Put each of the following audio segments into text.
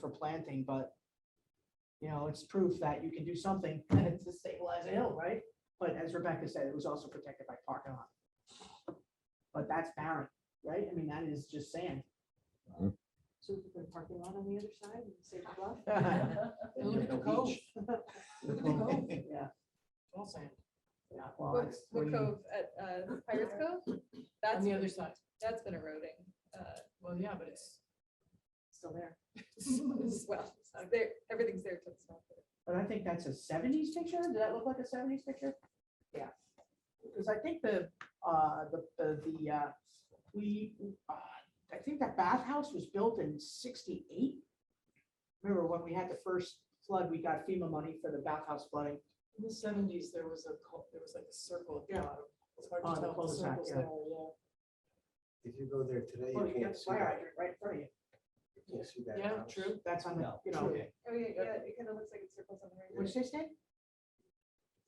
for planting, but you know, it's proof that you can do something and it's to stabilize a hill, right? But as Rebecca said, it was also protected by parking lot. But that's barren, right? I mean, that is just sand. So we could put a parking lot on the other side and say bluff. And there's no beach. Cove. Yeah, All sand. yeah, well, What it's what green. cove at uh, Pirates Cove? On That's, the other been- side. that's been eroding. uh, Well, yeah, but it's. Still there. it's- Well, there, everything's there to the south. but I think that's a seventies picture. Did that look like a seventies picture? Yeah. Because I think the, uh, the, the, the, uh, we, uh, I think that bathhouse was built in sixty-eight. Remember when we had the first flood, we got FEMA money for the bathhouse flooding. In the seventies, there was a, cul- there was like a circle at the Yeah. bottom. It's hard Oh, to the tell if the cul-de-sac, circle's yeah. there, yeah. If you go there today, Well, you Oh, you got can't the see fire that. hydrant right in front of you. you can't see that Yeah, house. true. That's on the, No, you know, true. Oh, yeah, Yeah. yeah, it kind of looks like it circles on the right. what's this thing?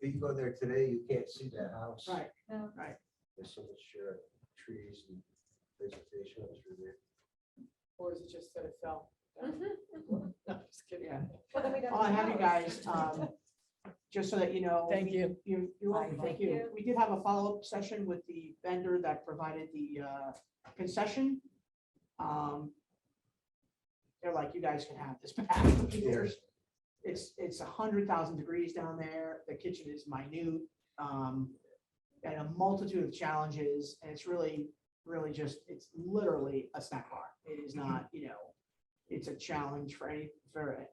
If you go there today, you can't see that house. Right, No. right. There's so much uh, trees and vegetation through there. Or is it just that it fell? down? Mhm. No, I'm just kidding. Yeah. Well, then we don't Oh, I have you know. guys, um, just so that you know. Thank we- you. You, you're welcome, Thank thank you. you. We did have a follow-up session with the vendor that provided the uh, concession. Um, They're like, you guys can have this back. There's, it's, it's a hundred thousand degrees down there. The kitchen is minute. um, And a multitude of challenges, and it's really, really just, it's literally a snack bar. It is not, you know, it's a challenge for any, for,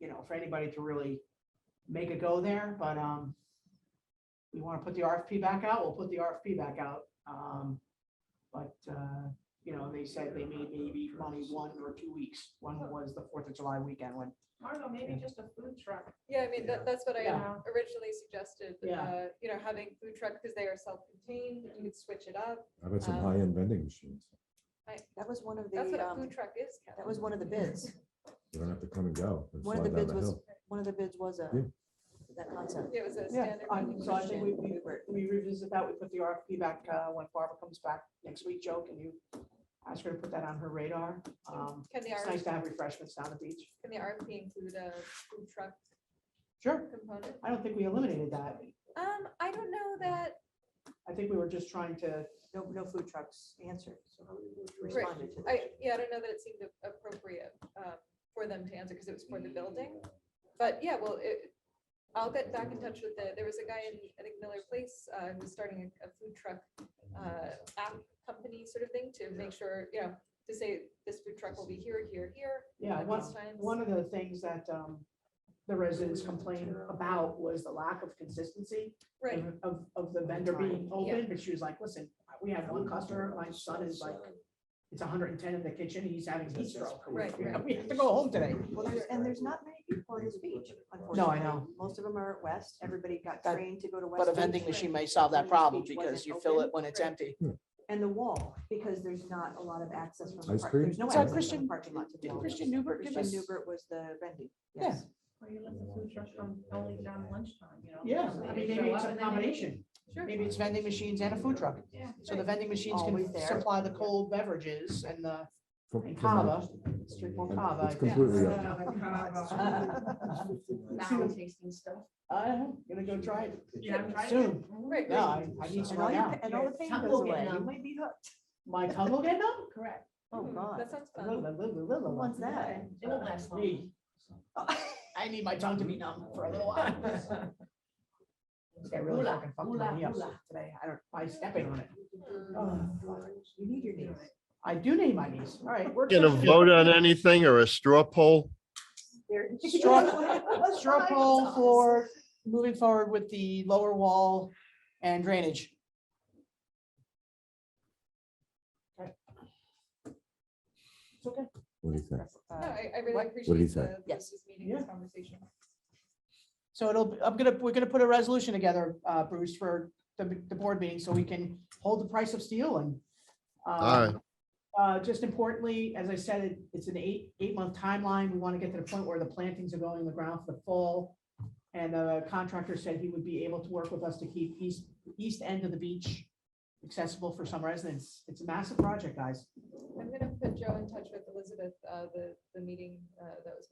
you know, for anybody to really make a go there, but, um, we want to put the RFP back out, we'll put the RFP back out. Um, but, uh, you know, they said they may maybe money one or two weeks. One was the Fourth of July weekend when. Marlo, maybe just a food truck. Yeah, I mean, that, that's what I uh, Yeah. originally suggested, Yeah. uh, you know, having food truck, because they are self-contained, you could switch it up. How about some Um, high-end vending machines? That was one of the, That's what a um, food truck is, Kevin. that was one of the bids. You don't have to come and go. and One of the slide down bids was, hill. one of the bids was a, Yeah. that concept. It was a Yeah, standard. I- so I think we, Christian we, Uber. we revisit that, we put the RFP back, uh, when Barbara comes back next week, Joe, can you ask her to put that on her radar? Um, Can the it's nice RFP, to have refreshments down the beach. can the RFP include a food truck Sure, component? I don't think we eliminated that. Um, I don't know that, I think we were just trying to, No, no food trucks answered, so How many would you- responded to I, that. yeah, I don't know that it seemed appropriate um, for them to answer because it was for the building. But yeah, well, it, I'll get back in touch with the, there was a guy in, I think Miller Place, uh, who's starting a a food truck uh, app company sort of thing to make sure, you know, to say this food truck will be here, here, here. yeah, at one, these times. One of the things that um, the residents complained about was the lack of consistency Right, of- of, of the vendor being open, but she was like, listen, we have one customer, my son is like, it's hundred and ten in the kitchen, he's having heat stroke. Right, You know, right. We have to go home today. Well, there's, and there's not many people on this beach, unfortunately. No, I know. Most of them are at West. Everybody got That- trained to go to West. But a Beach. vending machine may solve that problem because you fill it when it's empty. And the wall, because there's not a lot of access from the Ice park. cream? There's no Is that access from Christian- the parking lot to the Did wall. Christian Newbert give Christian us? Newbert was the vending. Yeah. Yes. Or you let the food truck from only down lunchtime, you know? Yeah, so I they mean, show maybe it's up a and then they leave. combination. sure. Maybe it's vending machines and a food truck. Yeah. So the vending machines Always can there. supply the cold beverages and the, For- and for kava, lunch. street more And kava. It's completely Yeah. up. Now tasting stuff. I'm Uh-huh. gonna go try it Yeah, I'm trying to- soon. Right, No, right. I, I need some And all right your, now. pa- and all the pain Tongue goes will get away. You numb. might be hooked. My tongue will get numb? Correct. Oh, Mm, God. That sounds Little, fun. little, little, Who little. wants that? Okay, It won't last long. Me. I need my tongue to be numb for a little while. They're really Hula, fucking fucking hula, Mm. me up hula. today. I don't, by stepping on it. You need your knees. I do need my knees. All right. work Going to session. vote on anything or a straw poll? Straw straw poll for moving forward with the lower wall and drainage. Okay. It's okay. What do you think? No, Uh, I, I really What? appreciate What did he the, say? the- Yes. this meeting, this Yeah. conversation. So it'll, I'm gonna, we're gonna put a resolution together, uh, Bruce, for the, the board meeting, so we can hold the price of steel and. All uh, right, Uh, just importantly, as I said, it- it's an eight, eight month timeline. We want to get to the point where the plantings are going in the ground for the fall. And the contractor said he would be able to work with us to keep east, east end of the beach accessible for some residents. It's a massive project, guys. I'm gonna put Joe in touch with Elizabeth, uh, the, the meeting, uh, that was